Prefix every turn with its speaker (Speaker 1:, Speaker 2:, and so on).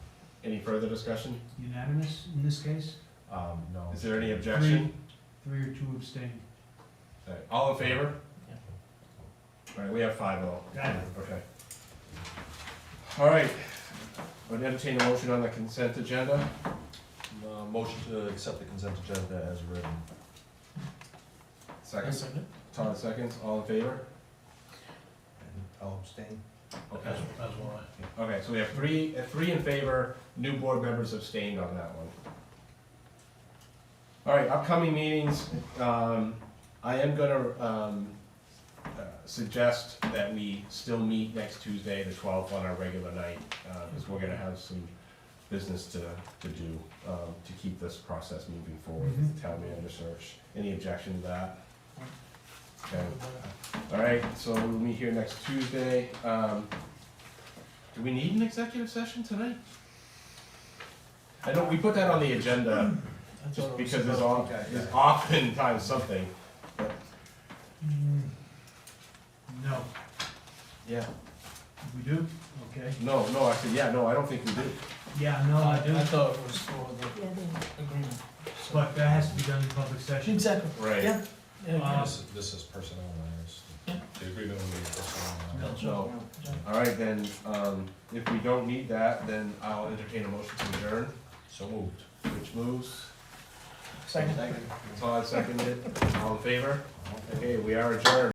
Speaker 1: Any further discussion?
Speaker 2: Unanimous in this case?
Speaker 3: Um, no.
Speaker 1: Is there any objection?
Speaker 2: Three or two abstain.
Speaker 1: All right, All in favor?
Speaker 2: Yeah.
Speaker 1: All right, we have five all.
Speaker 2: Got it.
Speaker 1: Okay. All right, would entertain a motion on the consent agenda.
Speaker 3: Uh, motion to accept the consent agenda as written.
Speaker 1: Seconds, Todd seconds, all in favor?
Speaker 3: And I'll abstain.
Speaker 1: Okay, okay, so we have three, uh, three in favor, new board members abstained on that one. All right, upcoming meetings, um, I am gonna, um, uh, suggest that we still meet next Tuesday, the twelfth, on our regular night, uhbecause because we're gonna have some business to, to do, um, to keep this process moving forward with the town manager search. Any objection to that? Okay. All right, so we'll meet here next Tuesday. Um, do we need an executive session tonight? I know we put that on the agenda just because there's all, there's oftentimes something.
Speaker 2: Mm, No,
Speaker 1: Yeah.
Speaker 2: we do? Okay.
Speaker 1: No, no, I said, yeah, no, I don't think we do.
Speaker 2: Yeah, no, I do,
Speaker 4: thought it was for
Speaker 5: Yeah, then.
Speaker 4: the agreement.
Speaker 2: but that has to be done in public session.
Speaker 4: Exactly.
Speaker 1: Right.
Speaker 4: Yeah. Yeah.
Speaker 3: This is, this is personnel matters. The agreement will be personnel matters.
Speaker 1: So, all right, then, um, if we don't need that, then I'll entertain a motion to adjourn,
Speaker 3: So moved.
Speaker 1: which moves.
Speaker 4: Second.
Speaker 1: Todd seconded, all in favor?
Speaker 3: Okay.
Speaker 1: Okay, we are adjourned.